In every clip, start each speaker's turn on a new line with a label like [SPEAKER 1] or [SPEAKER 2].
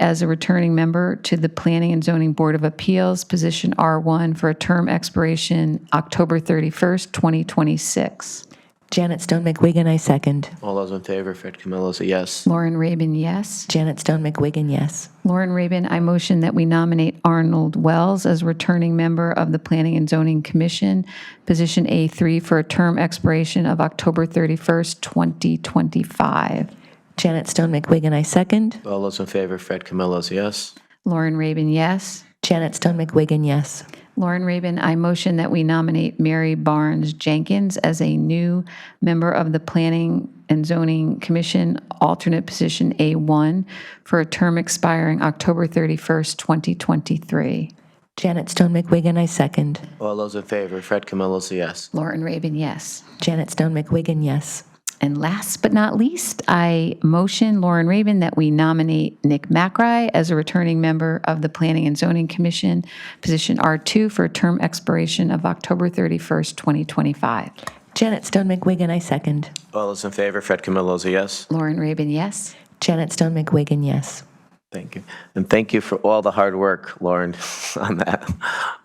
[SPEAKER 1] as a returning member to the Planning and Zoning Board of Appeals, position R1, for a term expiration October 31st, 2026.
[SPEAKER 2] Janet Stone McWigan, I second.
[SPEAKER 3] All those in favor, Fred Camillo's a yes.
[SPEAKER 1] Lauren Rabin, yes.
[SPEAKER 2] Janet Stone McWigan, yes.
[SPEAKER 1] Lauren Rabin, I motion that we nominate Arnold Wells as returning member of the Planning and Zoning Commission, position A3, for a term expiration of October 31st, 2025.
[SPEAKER 2] Janet Stone McWigan, I second.
[SPEAKER 3] All those in favor, Fred Camillo's a yes.
[SPEAKER 1] Lauren Rabin, yes.
[SPEAKER 2] Janet Stone McWigan, yes.
[SPEAKER 1] Lauren Rabin, I motion that we nominate Mary Barnes Jenkins as a new member of the Planning and Zoning Commission, alternate position A1, for a term expiring October 31st, 2023.
[SPEAKER 2] Janet Stone McWigan, I second.
[SPEAKER 3] All those in favor, Fred Camillo's a yes.
[SPEAKER 1] Lauren Rabin, yes.
[SPEAKER 2] Janet Stone McWigan, yes.
[SPEAKER 1] And last but not least, I motion Lauren Rabin that we nominate Nick Macri as a returning member of the Planning and Zoning Commission, position R2, for a term expiration of October 31st, 2025.
[SPEAKER 2] Janet Stone McWigan, I second.
[SPEAKER 3] All those in favor, Fred Camillo's a yes.
[SPEAKER 1] Lauren Rabin, yes.
[SPEAKER 2] Janet Stone McWigan, yes.
[SPEAKER 3] Thank you. And thank you for all the hard work, Lauren, on that.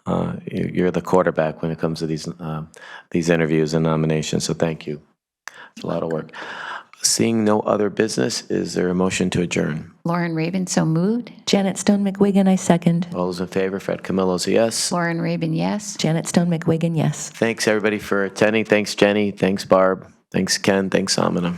[SPEAKER 3] Uh, you- You're the quarterback when it comes to these, um, these interviews and nominations, so thank you. It's a lot of work. Seeing no other business, is there a motion to adjourn?
[SPEAKER 1] Lauren Rabin, so moved.
[SPEAKER 2] Janet Stone McWigan, I second.
[SPEAKER 3] All those in favor, Fred Camillo's a yes.
[SPEAKER 1] Lauren Rabin, yes.
[SPEAKER 2] Janet Stone McWigan, yes.
[SPEAKER 3] Thanks, everybody, for attending. Thanks, Jenny. Thanks, Barb. Thanks, Ken. Thanks, Amina.